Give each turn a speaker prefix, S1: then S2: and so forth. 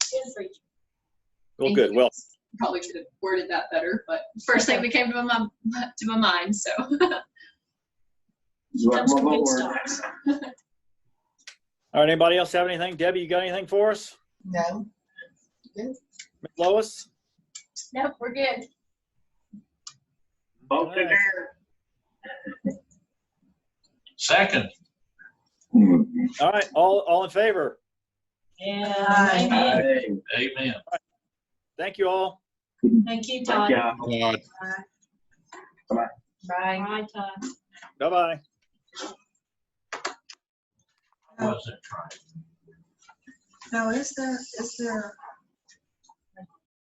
S1: Well,
S2: And
S1: good.
S2: he
S1: Well,
S2: Probably should have worded that better, but first thing that came to my, mum- to my mind, so. He
S3: Well,
S2: comes from
S3: well,
S2: good
S3: well,
S2: stocks.
S1: all right, anybody else have anything? Debbie, you got anything for us?
S4: No,
S1: Ms. Lois?
S2: Nope, we're good.
S3: Vote to dare.
S5: Second.
S3: Hmm.
S1: All right, all, all in favor?
S6: Yeah.
S3: Hey,
S5: Amen.
S1: Thank you all.
S6: Thank you,
S3: thank
S6: Todd.
S3: you.
S7: Yeah,
S4: Brian.
S6: Bye, Todd.
S1: Bye-bye.
S5: Wasn't trying.
S4: No, is there, is there